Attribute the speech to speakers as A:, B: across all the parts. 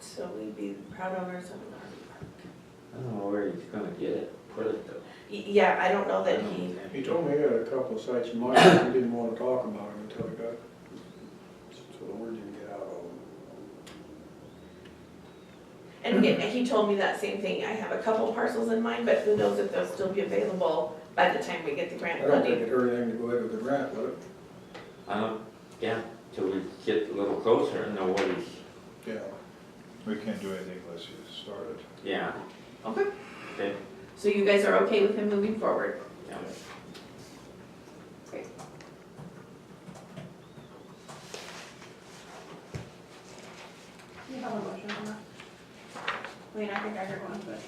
A: so we'd be proud owners of an RV park.
B: I don't know where he's gonna get it, put it though.
A: Y- Yeah, I don't know that he,
C: He told me he had a couple of sites in mind, but he didn't want to talk about them until he got, so the word didn't get out of him.
A: and he- he told me that same thing, I have a couple parcels in mind, but who knows if they'll still be available by the time we get the
C: I
A: grant
C: don't think
A: funding.
C: it hurt anything to go ahead with the grant, would it?
B: I don't, yeah, till we get a little closer and know what he's,
C: Yeah.
D: We can't do anything unless you start it.
B: yeah,
A: Okay,
B: okay,
A: so you guys are okay with him moving forward?
B: yeah.
A: Great.
E: You have a motion on that? I mean, I think I heard one, but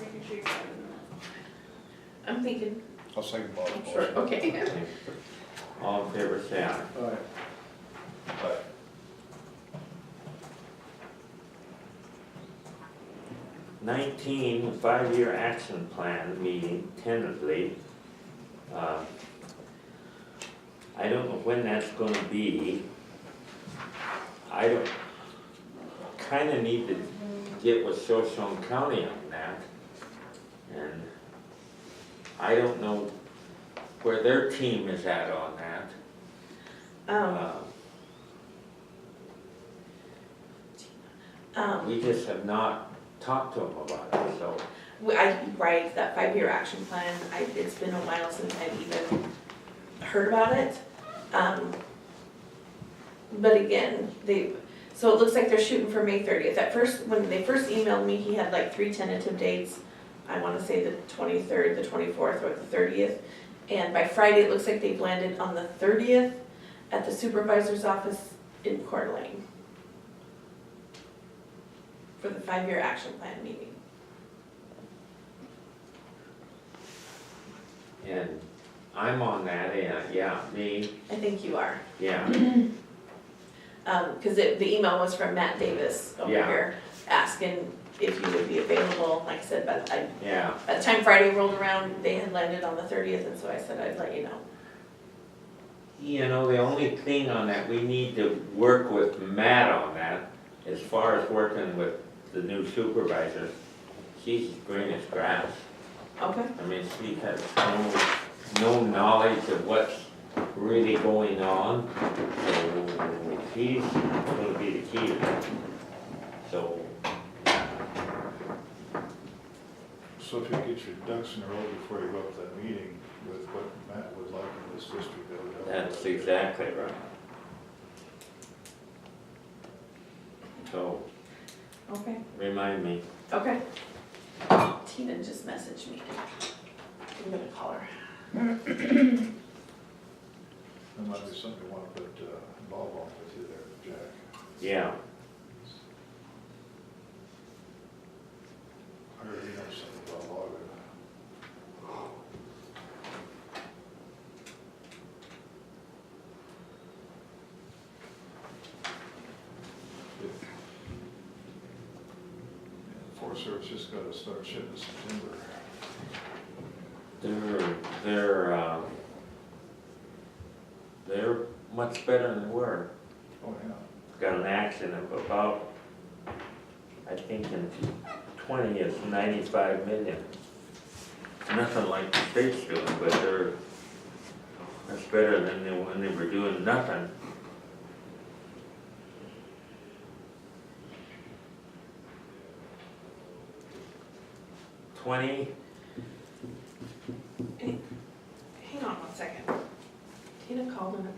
E: making sure you're better than that.
A: I'm thinking,
D: I'll second Bob's motion.
A: sure, okay.
B: okay. All in favor, say aye.
C: All right.
D: But
B: Nineteen, five-year action plan meeting tentatively. Um, I don't know when that's gonna be. I don't, kinda need to get with Shoshone County on that. And I don't know where their team is at on that.
A: Um,
B: Uh,
A: um,
B: We just have not talked to them about it, so.
A: we- I, right, that five-year action plan, I, it's been a while since I've even heard about it. Um, But again, they, so it looks like they're shooting for May thirtieth. At first, when they first emailed me, he had like three tentative dates. I wanna say the twenty-third, the twenty-fourth, or the thirtieth. And by Friday, it looks like they've landed on the thirtieth at the supervisor's office in Coeur d'Alene for the five-year action plan meeting.
B: And I'm on that, and yeah, me,
A: I think you are.
B: yeah.
A: Um, cause it, the email was from Matt Davis over
B: Yeah.
A: here, asking if you would be available, like I said, but I,
B: Yeah,
A: by the time Friday rolled around, they had landed on the thirtieth, and so I said I'd let you know.
B: you know, the only thing on that, we need to work with Matt on that, as far as working with the new supervisor. She's green as grass,
A: Okay.
B: I mean, she has no, no knowledge of what's really going on. So she's gonna be the key to that. So,
D: So if you get your ducks in a row before you go up to that meeting with what Matt would like in this district, that would help.
B: that's exactly right. So,
A: Okay.
B: remind me.
A: Okay. Tina just messaged me. I'm gonna call her.
D: That might be something you want to put uh, Bob on with you there, Jack.
B: Yeah,
D: I already know something about Bob. Yeah, Forest Service just got to start shipping some timber.
B: they're, they're, um, they're much better than they were.
D: Oh, yeah.
B: Got an accident of about, I think in twenty, it's ninety-five million. Nothing like the state's doing, but they're, that's better than they, when they were doing nothing. Twenty,
A: Hang on one second. Tina called and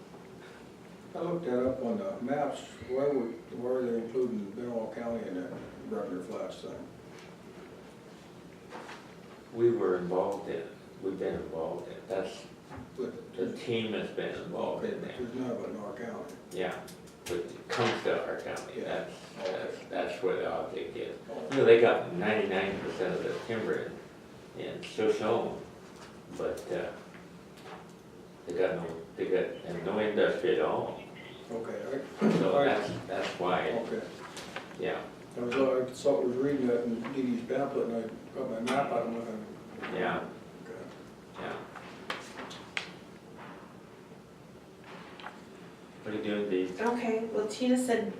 C: I looked that up on the maps, where would, where are they including Benoit County in that Rutgers Flats thing?
B: we were involved in, we've been involved in, that's,
C: But
B: the
C: there's,
B: team has been involved
C: okay,
B: in
C: but
B: that.
C: there's none about North County.
B: Yeah, but it comes to our county,
C: Yeah.
B: that's, that's, that's where the object is.
C: Oh,
B: You know, they got ninety-nine percent of the timber in, in Shoshone, but, uh, they got no, they got, and no industry at all,
C: Okay,
B: so
C: Right.
B: that's, that's
C: I,
B: why,
C: okay.
B: yeah,
C: I was, I saw, was reading that in Dee Dee's pamphlet and I got my map out and looking.
B: yeah,
C: Okay.
B: yeah. What are you doing, Dee?
A: Okay, well Tina said